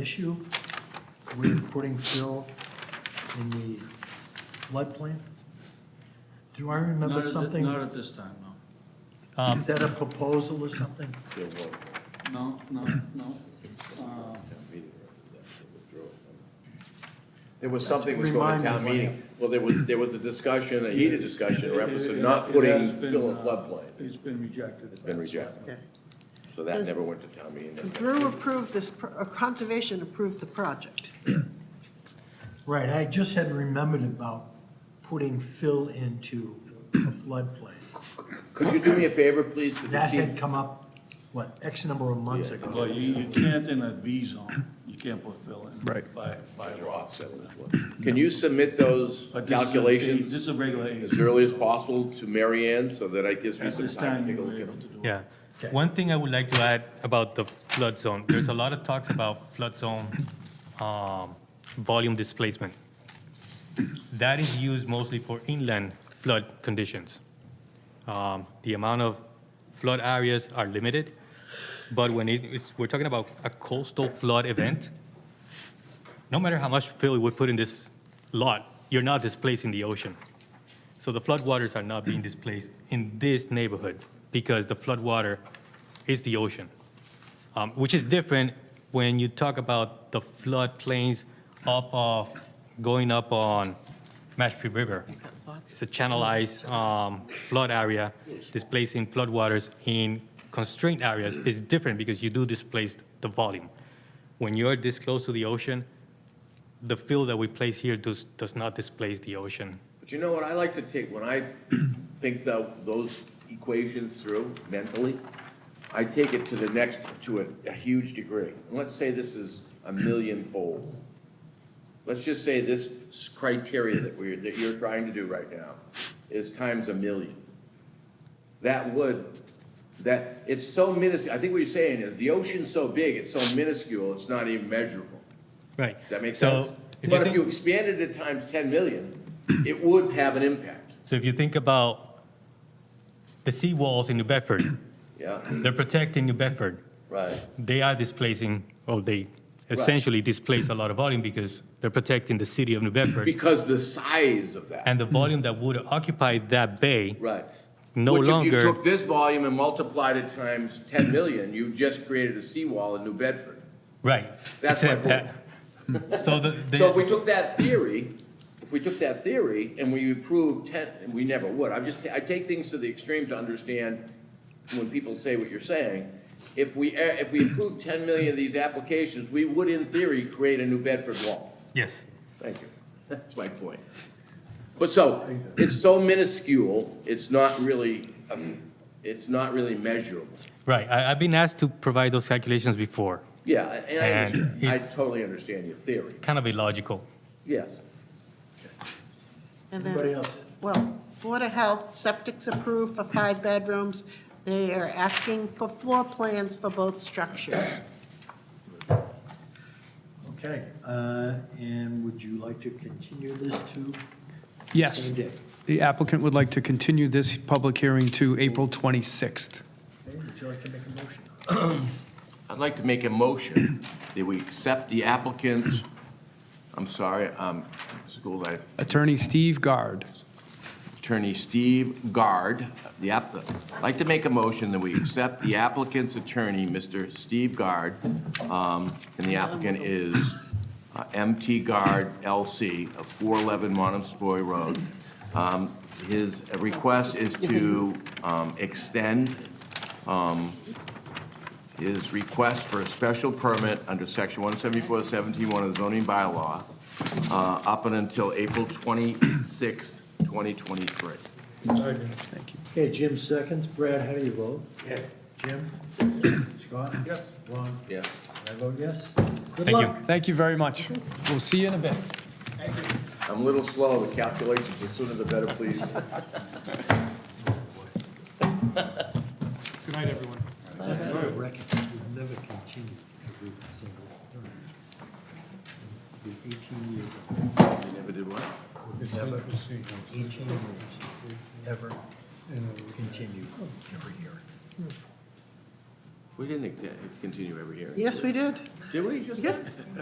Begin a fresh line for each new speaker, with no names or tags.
issue with putting fill in the floodplain? Do I
Not
remember
at thi-
something?
Not at this time, no.
Is that a proposal or something?
No, no, no. Uh,
There was something was going
Remind
to
me
town
what
meeting. Well, there was, there was a discussion, a heated discussion in reference to not
it- it
putting
has been,
fill in
uh,
floodplain.
It's been rejected.
It's been rejected.
Okay.
So that
Does-
never went to town meeting. never-
Drew approved this, pro- uh, Conservation approved the project.
Right, I just had remembered about putting fill into a floodplain.
Could you do me a favor, please? 'Cause it
That had
seems-
come up, what, X number of months
Yeah.
Well,
ago?
you, you can't in a V zone, you can't put fill in.
Right.
By, by law.
Can you submit those
But this is a- This
calculations
is a regular A.
as early as possible to Mary Ann so that it gives me
At
some
this time,
time to
you
take a
were
look at
able
them?
to do it.
Yeah.
Okay.
One thing I would like to add about the flood zone, there's a lot of talks about flood zone um, volume displacement. That is used mostly for inland flood conditions. Um, The amount of flood areas are limited, but when it is, we're talking about a coastal flood event, no matter how much fill we put in this lot, you're not displacing the ocean. So the floodwaters are not being displaced in this neighborhood because the floodwater is the ocean, um, which is different when you talk about the floodplains up off, going up on Mashpee River. It's a channelized um, flood area, displacing floodwaters in constrained areas is different because you do displace the volume. When you're this close to the ocean, the fill that we place here does, does not displace the ocean.
But you know what, I like to take, when I think tho- those equations through mentally, I take it to the next, to a, a huge degree. And Let's say this is a millionfold. Let's just say this s- criteria that we're, that you're trying to do right now is times a million. That would, that, it's so minuscule, I think what you're saying is, the ocean's so big, it's so minuscule, it's not even measurable.
Right.
Does that make
So,
sense?
if you
But if
think-
you expanded it times 10 million, it would have an impact,
So if you think about the seawalls in New Bedford,
yeah?
they're protecting New Bedford.
Right,
They are displacing, or they essentially displace a lot of volume because they're protecting the city of New Bedford.
because the size of that,
And the volume that would occupy that bay,
right.
No
Which if you
longer-
took this volume and multiplied it times 10 million, you just created a seawall in New Bedford.
right.
That's my
except that- So the,
So if we
the,
took that theory, if we took that theory and we approved 10, and we never would, I'm just, I take things to the extreme to understand when people say what you're saying. If we, a- if we approved 10 million of these applications, we would in theory create a New Bedford wall.
yes,
Thank you. That's my point. But so, it's so minuscule, it's not really, um, it's not really measurable.
right. I, I've been asked to provide those calculations before,
Yeah, and I
And
understand, I
it's-
totally understand your theory,
kind of illogical.
yes.
And
Anybody
then,
else?
well, Board of Health, septic's approved for five bedrooms. They are asking for floor plans for both structures.
Okay, uh, and would you like to continue this to?
Yes.
Same day.
The applicant would like to continue this public hearing to April 26th.
Okay, Would you like to make a motion?
I'd like to make a motion that we accept the applicant's, I'm sorry, um, school life
Attorney Steve Gard.
attorney Steve Guard, the app, I'd like to make a motion that we accept the applicant's attorney, Mr. Steve Guard, um, and the applicant is uh, MT Guard LC of 411 Montempsori Road. Um, His request is to um, extend um, his request for a special permit under section 174-171 of the zoning bylaw uh, up and until April 26th, 2023.
Okay, Jim seconds. Brad, how do you vote? Yes. Jim? Scott? Yes. Ron?
Yeah.
I vote yes. Good
Thank you.
luck.
Thank you very much. We'll see you in a bit.
I'm a little slow with calculations, the sooner the better, please.
Good night, everyone.
That's our record. We've never continued every single term. We're eighteen years old.
You never did what?
We've never, eighteen years, ever continued every year.
We didn't ex- continue every hearing.
Yes, we did.
Did we just?
Yep.